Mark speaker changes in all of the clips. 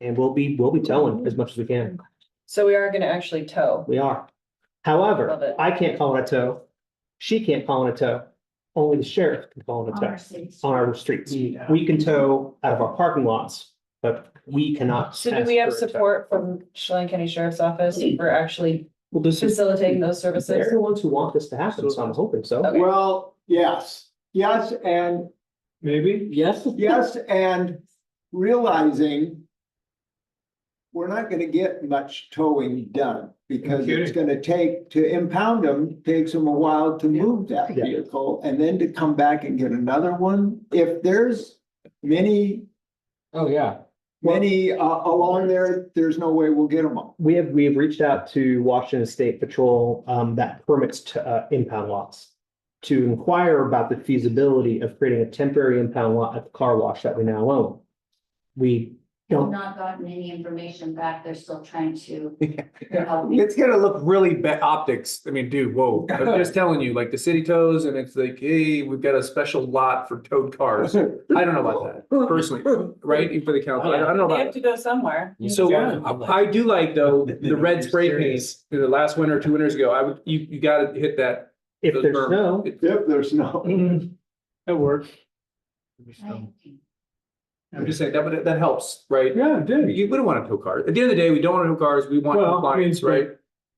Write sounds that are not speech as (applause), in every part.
Speaker 1: And we'll be, we'll be towing as much as we can.
Speaker 2: So we are gonna actually tow.
Speaker 1: We are.
Speaker 2: Love
Speaker 1: However,
Speaker 2: it.
Speaker 1: I can't call it a tow. She can't call it a tow. Only the sheriff can call it a tow on our streets.
Speaker 3: Yeah.
Speaker 1: We can tow out of our parking lots, but we cannot.
Speaker 2: So do
Speaker 1: ask
Speaker 2: we have
Speaker 1: for a tow.
Speaker 2: support from Chelan County Sheriff's Office for actually
Speaker 1: Well, this is,
Speaker 2: facilitating those
Speaker 1: they're
Speaker 2: services?
Speaker 1: the ones who want this to happen, so I'm hoping so.
Speaker 2: Okay.
Speaker 3: Well, yes, yes, and
Speaker 4: Maybe?
Speaker 1: Yes.
Speaker 3: yes, and realizing. We're not gonna get much towing done because it's gonna take, to impound them, takes them a while to move that
Speaker 1: Yeah.
Speaker 3: vehicle. And then to come back and get another one. If there's many,
Speaker 4: Oh, yeah.
Speaker 3: many uh along there, there's no way we'll get them all.
Speaker 1: We have, we have reached out to Washington State Patrol, um, that permits to, uh, impound lots. To inquire about the feasibility of creating a temporary impound lot at the car wash that we now own. We
Speaker 5: I've
Speaker 1: don't,
Speaker 5: not gotten any information back. They're still trying to. help me.
Speaker 4: It's gonna look really bad optics. I mean, dude, whoa.
Speaker 6: (laughs)
Speaker 4: I'm just telling you, like the city tows and it's like, hey, we've got a special lot for towed cars. I don't know about that personally, right? For the council, I don't I don't know
Speaker 2: They
Speaker 4: about
Speaker 2: have to go somewhere.
Speaker 4: that. So I do like though, the red spray paint, the last winter, two winters ago, I would, you, you gotta hit that.
Speaker 1: if
Speaker 4: those
Speaker 1: there's
Speaker 4: berm.
Speaker 1: no,
Speaker 4: It-
Speaker 3: Yep, there's no.
Speaker 1: mm,
Speaker 4: It worked.
Speaker 5: Right.
Speaker 4: I'm just saying that, would that helps, right?
Speaker 6: Yeah, it did.
Speaker 4: You, we don't want to tow cars. At the end of the day, we don't want to tow cars. We want
Speaker 6: Well, I mean,
Speaker 4: compliance,
Speaker 6: but-
Speaker 4: right?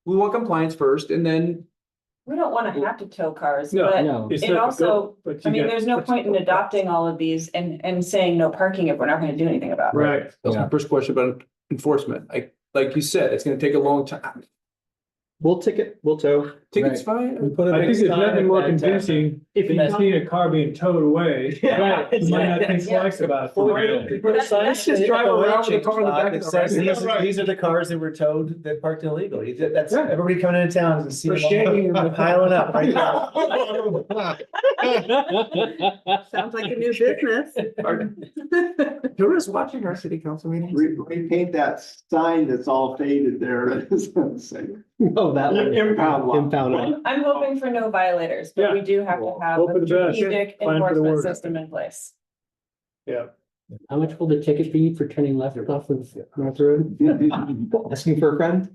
Speaker 4: We want compliance first and then,
Speaker 2: We don't wanna have to tow cars,
Speaker 6: No,
Speaker 2: but
Speaker 6: no. It's
Speaker 2: it
Speaker 6: not a
Speaker 2: also-
Speaker 6: goal, but
Speaker 2: I
Speaker 6: you
Speaker 2: mean,
Speaker 6: got-
Speaker 2: there's no point in adopting all of these and, and saying no parking if we're not gonna do anything about it.
Speaker 6: Right,
Speaker 4: that's my first question about enforcement. Like, like you said, it's gonna take a long time.
Speaker 1: we'll ticket,
Speaker 7: (laughs)
Speaker 1: we'll tow.
Speaker 4: Tickets fine.
Speaker 6: I think there's nothing more convincing
Speaker 1: If
Speaker 6: than you
Speaker 1: you.
Speaker 6: see a car being
Speaker 2: (laughs)
Speaker 6: towed away.
Speaker 1: Yeah.
Speaker 6: Right, You might not think
Speaker 2: Yeah.
Speaker 6: twice about
Speaker 1: Really?
Speaker 6: it.
Speaker 4: Let's just drive around with a car in the back. of the
Speaker 6: says-
Speaker 4: red-
Speaker 6: these are-
Speaker 7: These are the cars that were towed that parked illegally. That's,
Speaker 4: Yeah.
Speaker 7: everybody coming into town and
Speaker 4: For shame.
Speaker 7: seeing them piling up right now.
Speaker 2: Sounds like a new business.
Speaker 4: Our- Who is watching our city council meetings? (laughs)
Speaker 3: Re- Repaint that sign that's all faded there. (laughs)
Speaker 1: Oh, that one.
Speaker 3: Impound lot.
Speaker 1: Impound lot.
Speaker 2: I'm hoping for no violators, but we do have to have
Speaker 6: Hope for
Speaker 2: a
Speaker 6: the best.
Speaker 2: strategic
Speaker 6: Plan for the
Speaker 2: enforcement
Speaker 6: worst.
Speaker 2: system in
Speaker 6: (laughs)
Speaker 2: place. (laughs)
Speaker 8: How much will the ticket be for turning left off of North Road?
Speaker 1: Asking for a friend?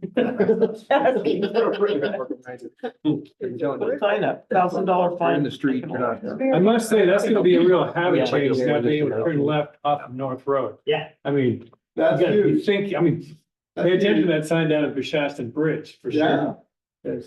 Speaker 7: Sign up, thousand dollar
Speaker 4: You're in the street, you're not.
Speaker 6: (laughs) I must say, that's gonna be a real
Speaker 1: Yeah.
Speaker 6: habit change, not being able to turn left off of North Road.
Speaker 1: Yeah.
Speaker 6: I mean, you
Speaker 3: That's
Speaker 6: gotta be
Speaker 3: huge.
Speaker 6: thinking, I mean, pay attention to that sign down at Bishaston Bridge, for
Speaker 3: Yeah.
Speaker 6: sure.
Speaker 1: Th-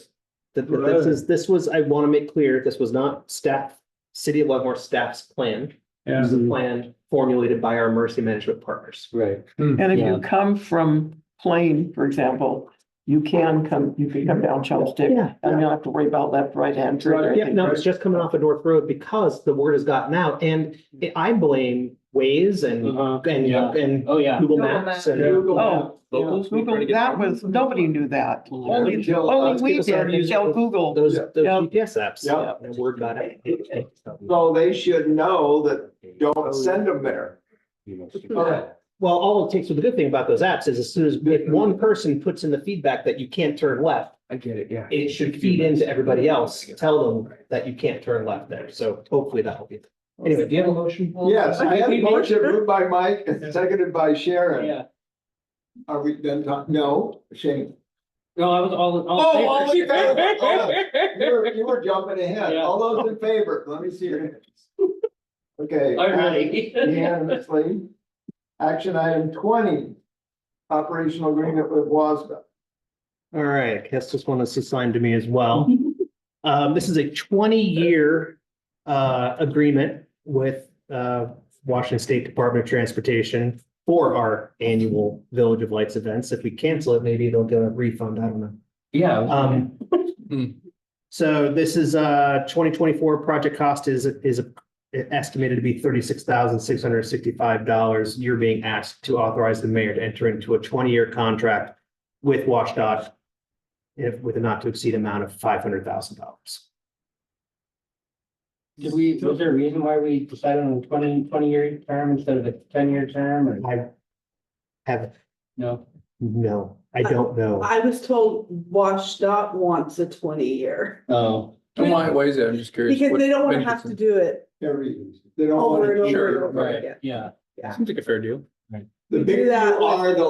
Speaker 1: th- This is, this was, I want to make clear, this was not staff, City of Leadmore staff's plan. It
Speaker 6: Yeah.
Speaker 1: was a plan formulated by our emergency management partners.
Speaker 8: Right.
Speaker 9: And if
Speaker 8: Yeah.
Speaker 9: you come from Plain, for example, you can come, you can come down Chopstick
Speaker 1: Yeah.
Speaker 9: and you don't have to worry about left, right hand turn or
Speaker 1: Yeah,
Speaker 9: anything.
Speaker 1: no, it's just coming off of North Road because the word has gotten out and I- I blame Waze and,
Speaker 6: Uh-huh.
Speaker 8: Yeah.
Speaker 1: and, and
Speaker 8: Oh, yeah.
Speaker 1: Google
Speaker 2: Google
Speaker 1: Maps
Speaker 2: Maps.
Speaker 1: and.
Speaker 9: Oh,
Speaker 4: Locals, we try to
Speaker 9: Google,
Speaker 4: get-
Speaker 9: that was, nobody knew that. Only,
Speaker 3: Until, uh,
Speaker 9: only we
Speaker 1: people started
Speaker 9: did until
Speaker 1: using-
Speaker 9: Google.
Speaker 1: Those,
Speaker 3: Yeah.
Speaker 1: those
Speaker 9: Yeah.
Speaker 1: GPS apps.
Speaker 3: Yeah.
Speaker 1: And word got out.
Speaker 3: So they should know that don't send them there.
Speaker 1: Well, all it takes, the good thing about those apps is as soon as, if one person puts in the feedback that you can't turn left,
Speaker 4: I get it, yeah.
Speaker 1: it should feed into everybody else, tell them that you can't turn left there. So hopefully that'll be. Anyway, do you have a motion?
Speaker 3: Yes, I had a motion moved by Mike and seconded by Sharon.
Speaker 8: Yeah.
Speaker 3: Are we done talking? No, Shane.
Speaker 8: No, I was all,
Speaker 3: Oh,
Speaker 8: all.
Speaker 3: all in favor.
Speaker 8: (laughs)
Speaker 3: Oh, You were, you were jumping ahead.
Speaker 8: Yeah.
Speaker 3: All those in favor, let me see your hands. Okay.
Speaker 8: All right.
Speaker 3: Unanimously. Action item twenty, operational agreement with WASDA.
Speaker 1: All right, I guess this one is assigned to me as well. Um, this is a twenty-year uh agreement with uh Washington State Department of Transportation for our annual Village of Lights events. If we cancel it, maybe they'll get a refund. I don't know.
Speaker 8: Yeah.
Speaker 1: Um.
Speaker 4: Mm.
Speaker 1: So this is uh twenty twenty-four project cost is is estimated to be thirty-six thousand six hundred sixty-five dollars. You're being asked to authorize the mayor to enter into a twenty-year contract with WashDOT if with a not to exceed amount of five hundred thousand dollars.
Speaker 8: Did we, was there a reason why we decided on a twenty, twenty-year term instead of a ten-year term or
Speaker 1: I have,
Speaker 8: no?
Speaker 1: no, I don't know.
Speaker 10: I was told WashDOT wants a twenty year
Speaker 8: Oh.
Speaker 4: And Why, why is that? I'm just curious.
Speaker 10: because
Speaker 4: What
Speaker 10: they don't want to
Speaker 4: benefits
Speaker 10: have
Speaker 4: and-
Speaker 10: to do it
Speaker 3: Every, they don't
Speaker 10: over
Speaker 3: want
Speaker 10: and
Speaker 3: to.
Speaker 10: over and
Speaker 4: Sure,
Speaker 10: over
Speaker 4: right.
Speaker 10: again.
Speaker 8: Yeah.
Speaker 4: Seems like a fair deal.
Speaker 3: The bigger you
Speaker 10: that with-
Speaker 3: are, the